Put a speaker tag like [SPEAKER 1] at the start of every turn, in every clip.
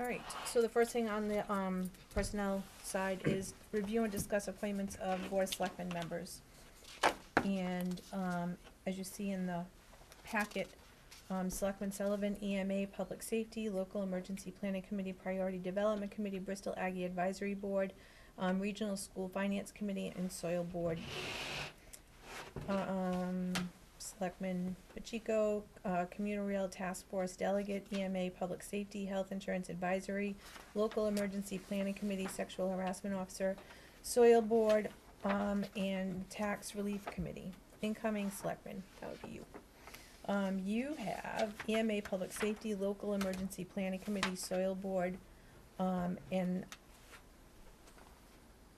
[SPEAKER 1] All right, so the first thing on the um, personnel side is review and discuss appointments of board of selectmen members. And um, as you see in the packet, um, Selectman Sullivan, EMA, Public Safety, Local Emergency Planning Committee, Priority Development Committee, Bristol Aggie Advisory Board, um, Regional School Finance Committee, and Soil Board. Um, Selectman Pacheco, uh, Communal Rail Task Force Delegate, EMA Public Safety, Health Insurance Advisory, Local Emergency Planning Committee, Sexual Harassment Officer, Soil Board, um, and Tax Relief Committee. Incoming Selectman, that would be you. Um, you have EMA Public Safety, Local Emergency Planning Committee, Soil Board, um, and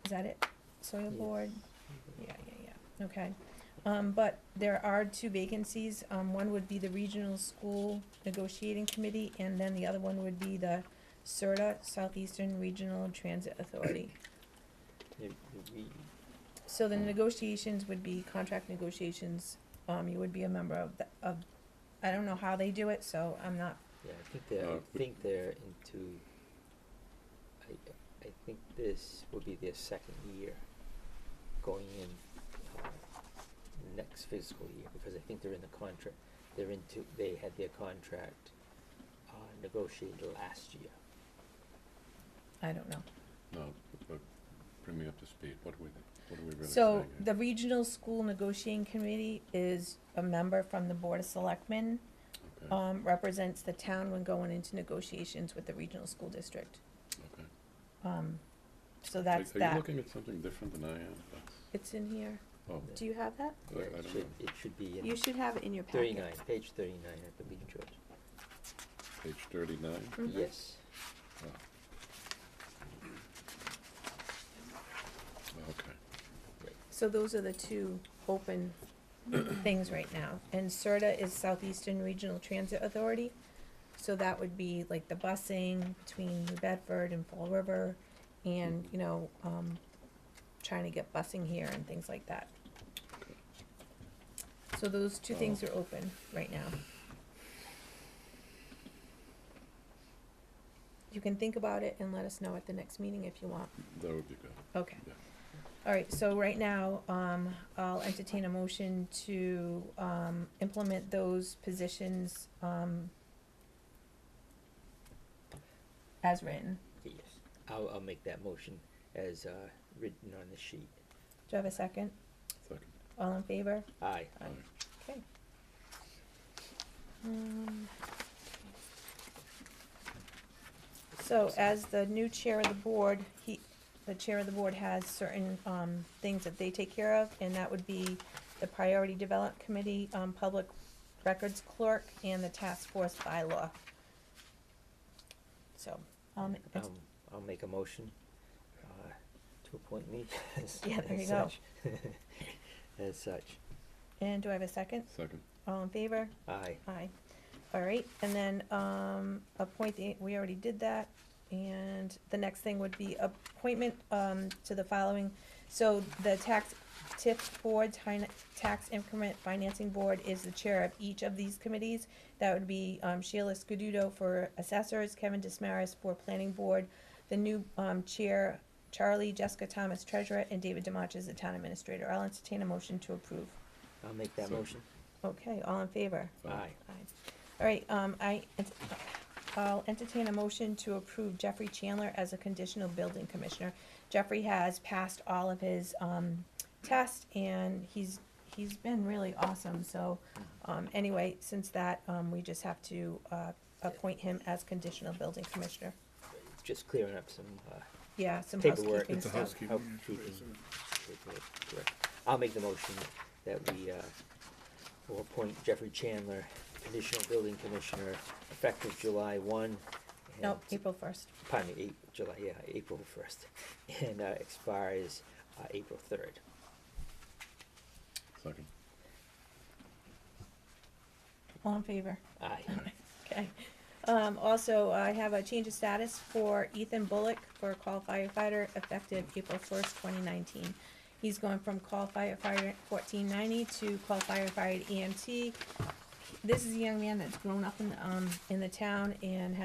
[SPEAKER 1] is that it? Soil Board? Yeah, yeah, yeah, okay. Um, but there are two vacancies, um, one would be the Regional School Negotiating Committee, and then the other one would be the CERTA, Southeastern Regional Transit Authority.
[SPEAKER 2] If we-
[SPEAKER 1] So the negotiations would be contract negotiations, um, you would be a member of, the- of, I don't know how they do it, so I'm not,
[SPEAKER 2] Yeah, I think they're,
[SPEAKER 3] Uh,
[SPEAKER 2] I think they're into, I, I think this will be their second year going in, uh, next fiscal year, because I think they're in the contract, they're into, they had their contract, uh, negotiated last year.
[SPEAKER 1] I don't know.
[SPEAKER 3] No, but bring me up to speed, what are we, what are we really
[SPEAKER 1] So
[SPEAKER 3] saying here?
[SPEAKER 1] the Regional School Negotiating Committee is a member from the Board of Selectmen,
[SPEAKER 3] Okay,
[SPEAKER 1] um, represents the town when going into negotiations with the regional school district.
[SPEAKER 3] okay.
[SPEAKER 1] Um, so that's
[SPEAKER 3] Are- Are you
[SPEAKER 1] that.
[SPEAKER 3] looking at something different than I am? That's,
[SPEAKER 1] It's in here.
[SPEAKER 3] oh,
[SPEAKER 1] Do you have that?
[SPEAKER 3] I,
[SPEAKER 2] Yeah,
[SPEAKER 3] I
[SPEAKER 2] it
[SPEAKER 3] don't know,
[SPEAKER 2] should, it should be
[SPEAKER 1] You
[SPEAKER 2] in
[SPEAKER 1] should have it in your packet.
[SPEAKER 2] thirty-nine, page thirty-nine, I believe, George.
[SPEAKER 3] page thirty-nine?
[SPEAKER 1] Mhm.
[SPEAKER 2] Yes,
[SPEAKER 3] Oh. Okay,
[SPEAKER 1] So those are the two open things right now. And CERTA is Southeastern Regional Transit Authority. So that would be like the busing between New Bedford and Fall River and, you know, um, trying to get busing here and things like that. So those two things are open right now. You can think about it and let us know at the next meeting if you want.
[SPEAKER 3] that would be good.
[SPEAKER 1] Okay.
[SPEAKER 3] Yeah.
[SPEAKER 1] All right, so right now, um, I'll entertain a motion to, um, implement those positions, um, as written.
[SPEAKER 2] yes. I'll, I'll make that motion as, uh, written on the sheet.
[SPEAKER 1] Do I have a second?
[SPEAKER 3] Second,
[SPEAKER 1] All in favor?
[SPEAKER 2] Aye.
[SPEAKER 1] Aye.
[SPEAKER 3] Aye.
[SPEAKER 1] Okay. Um, So as the new chair of the board, he, the chair of the board has certain, um, things that they take care of, and that would be the Priority Development Committee, um, Public Records Clerk, and the Task Force Bylaw. So, um, it's-
[SPEAKER 2] Um, I'll make a motion, uh, to appoint me as,
[SPEAKER 1] Yeah, there you
[SPEAKER 2] as
[SPEAKER 1] go.
[SPEAKER 2] such. As such,
[SPEAKER 1] and do I have a second?
[SPEAKER 3] second,
[SPEAKER 1] All in favor?
[SPEAKER 2] aye,
[SPEAKER 1] Aye. All right, and then, um, appoint the, we already did that, and the next thing would be appointment, um, to the following. So the tax TIF board, Tin- tax increment financing board is the chair of each of these committees. That would be, um, Sheila Scududo for assessors, Kevin Dismaris for planning board, the new, um, chair, Charlie, Jessica Thomas treasurer, and David Demarch is the town administrator. I'll entertain a motion to approve.
[SPEAKER 2] I'll make that
[SPEAKER 3] Second.
[SPEAKER 2] motion,
[SPEAKER 1] Okay, all in favor?
[SPEAKER 3] aye,
[SPEAKER 2] aye,
[SPEAKER 1] Aye. All right, um, I, ent- I'll entertain a motion to approve Jeffrey Chandler as a conditional building commissioner. Jeffrey has passed all of his, um, tests and he's, he's been really awesome, so, um, anyway, since that, um, we just have to, uh, appoint him as conditional building commissioner.
[SPEAKER 2] just clearing up some, uh,
[SPEAKER 1] Yeah, some
[SPEAKER 2] paperwork.
[SPEAKER 1] housekeeping
[SPEAKER 3] It's a
[SPEAKER 1] stuff.
[SPEAKER 3] housekeeping
[SPEAKER 2] housekeeping paperwork, correct. I'll make the motion that we, uh, will appoint Jeffrey Chandler, conditional building commissioner, effective July one.
[SPEAKER 1] No,
[SPEAKER 2] and-
[SPEAKER 1] April first.
[SPEAKER 2] Pardon me, eight, July, yeah, April first, and, uh, expires, uh, April third.
[SPEAKER 3] second,
[SPEAKER 1] All in favor?
[SPEAKER 2] Aye,
[SPEAKER 1] Okay. Um, also, I have a change of status for Ethan Bullock for call firefighter effective April first, twenty nineteen. He's going from call firefighter fourteen ninety to call E firefighter EMT. This is a young man that's grown up in, um, in the town and has